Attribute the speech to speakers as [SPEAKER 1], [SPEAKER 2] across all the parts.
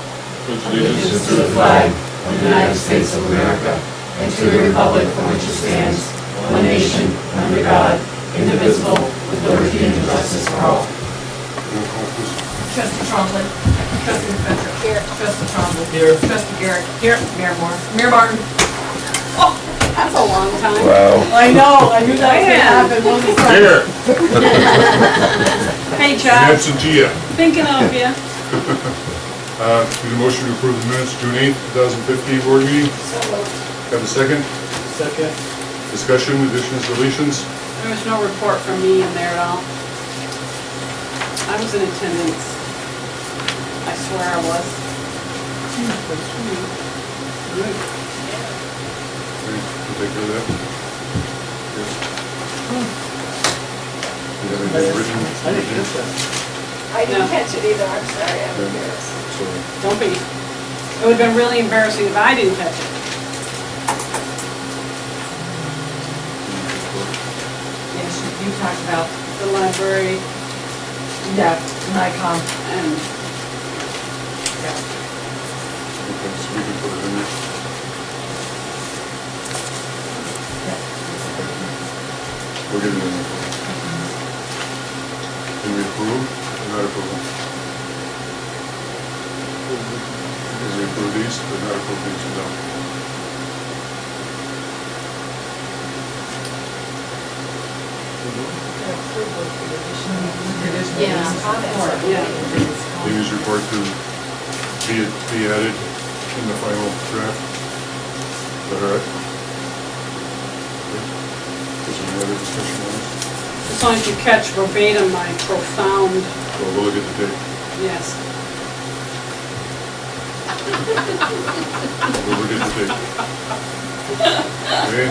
[SPEAKER 1] allegiance to the flag of the United States of America and to the republic for which it stands, one nation, under God, indivisible, with liberty and justice for all.
[SPEAKER 2] Roll call, please.
[SPEAKER 3] Trustee Trombley. Trustee McFetrich. Here. Trustee Trombley.
[SPEAKER 4] Here.
[SPEAKER 3] Trustee Garrett. Here. Mayor Moore. Mayor Martin.
[SPEAKER 5] Oh, That's a long time.
[SPEAKER 6] Wow.
[SPEAKER 3] I know, I knew
[SPEAKER 5] that was gonna happen,
[SPEAKER 2] Here,
[SPEAKER 5] Hey, Chuck,
[SPEAKER 2] absentia.
[SPEAKER 5] thinking of you.
[SPEAKER 2] Uh, Need a motion to approve the minutes, June 8th, 2015 board meeting? Have a second?
[SPEAKER 4] Second.
[SPEAKER 2] Discussion, additions, deletions?
[SPEAKER 5] There was no report from me in there at all. I was in attendance. I swear I was.
[SPEAKER 2] Okay, We'll take care of that. Yes. You have anything written?
[SPEAKER 4] I didn't get that.
[SPEAKER 7] I didn't catch it either, I'm sorry, I'm
[SPEAKER 2] Okay.
[SPEAKER 7] embarrassed.
[SPEAKER 2] Sorry.
[SPEAKER 5] Don't be. It would've been really embarrassing if I didn't catch it.
[SPEAKER 3] Yes, you you talked about,
[SPEAKER 5] The library
[SPEAKER 3] yeah, NICOM.
[SPEAKER 5] and
[SPEAKER 2] Okay, so we can put it in there. We'll get it in there. Can we approve or not approve? Is we approve these, but not approve these, no?
[SPEAKER 5] Yeah. Yeah.
[SPEAKER 2] These report to be, be added in the final draft. Is that all right? Okay. Is there any other discussion on this?
[SPEAKER 5] as long as you catch verbatim my profound,
[SPEAKER 2] Well, we'll look at the date.
[SPEAKER 5] yes.
[SPEAKER 2] We'll look at the date. Okay?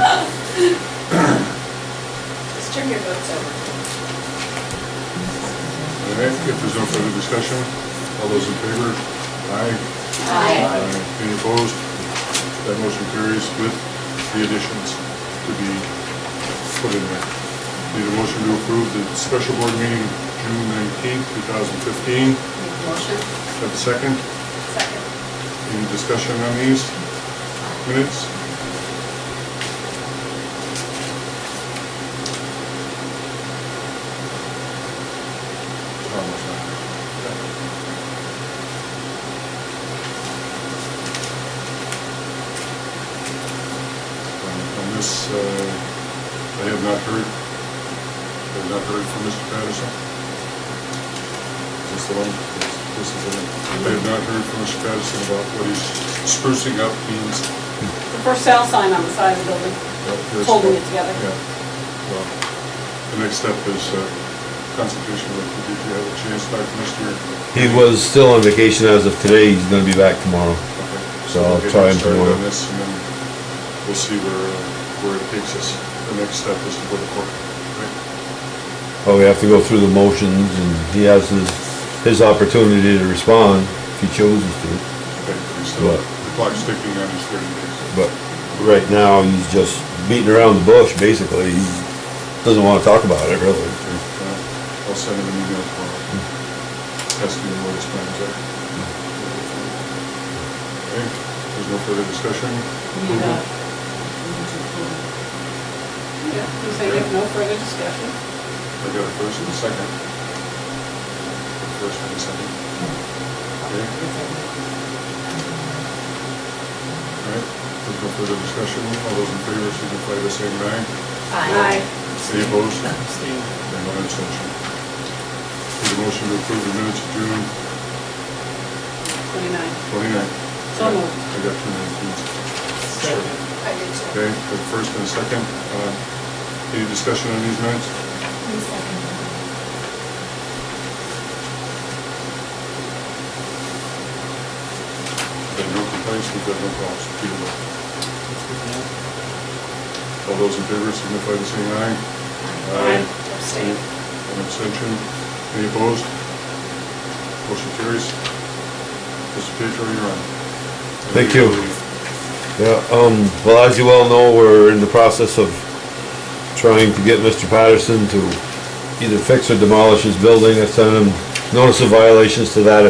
[SPEAKER 7] Just turn your votes over.
[SPEAKER 2] All right, if there's no further discussion, all those in favor? Aye.
[SPEAKER 7] Aye.
[SPEAKER 2] Any opposed? That motion carries with the additions to be put in there. Need a motion to approve the special board meeting June nineteenth, two thousand fifteen.
[SPEAKER 5] Motion?
[SPEAKER 2] Have a second?
[SPEAKER 7] Second.
[SPEAKER 2] Any discussion on these minutes? Um, On this, uh, I have not heard, I have not heard from Mr. Patterson. This the one, this this is the one. I have not heard from Mr. Patterson about what he's sprucing up means.
[SPEAKER 5] The for sale sign on the side of the building.
[SPEAKER 2] It's
[SPEAKER 5] Holding it together.
[SPEAKER 2] Yeah. Well, The next step is uh, consultation with the DPW, have a chance back from Mr.
[SPEAKER 6] He was still on vacation as of today, he's gonna be back tomorrow.
[SPEAKER 2] Okay.
[SPEAKER 6] So I'll
[SPEAKER 2] we'll get
[SPEAKER 6] try and
[SPEAKER 2] started
[SPEAKER 6] promote
[SPEAKER 2] on
[SPEAKER 6] it.
[SPEAKER 2] this, and then we'll see where, uh, where it takes us. The next step is to go to court, right?
[SPEAKER 6] But we have to go through the motions and he has his, his opportunity to respond if he chooses to.
[SPEAKER 2] Okay, he's still,
[SPEAKER 6] Right.
[SPEAKER 2] the clock's ticking on his thirty days.
[SPEAKER 6] But right now, he's just beating around the bush, basically. He doesn't wanna talk about it, really.
[SPEAKER 2] Uh, I'll send him an email tomorrow, asking him what his plans are.
[SPEAKER 6] Mm.
[SPEAKER 2] Okay, there's no further discussion?
[SPEAKER 3] Need
[SPEAKER 5] uh,
[SPEAKER 3] a-
[SPEAKER 5] Yeah, you say you have no further discussion.
[SPEAKER 2] I got a first and a second. First and a second. Okay. All right, there's no further discussion, all those in favor signify by saying aye.
[SPEAKER 5] Aye.
[SPEAKER 2] Any opposed?
[SPEAKER 4] Abstain.
[SPEAKER 2] And one abstention. Need a motion to approve the minutes of June
[SPEAKER 5] Twenty-nine.
[SPEAKER 2] twenty-ninth.
[SPEAKER 5] So moved.
[SPEAKER 2] I got two nineteens.
[SPEAKER 4] Second.
[SPEAKER 7] I did too.
[SPEAKER 2] Okay, the first and the second, uh, any discussion on these minutes? There are no complaints, we've got no problems, Peter Murphy. All those in favor signify by saying aye.
[SPEAKER 5] Aye.
[SPEAKER 7] Abstain.
[SPEAKER 2] An abstention, any opposed? Motion carries. Mr. Pedro, you're on.
[SPEAKER 6] Thank you. Yeah, um, well, as you well know, we're in the process of trying to get Mr. Patterson to either fix or demolish his building. I sent him notice of um, violations to that effect.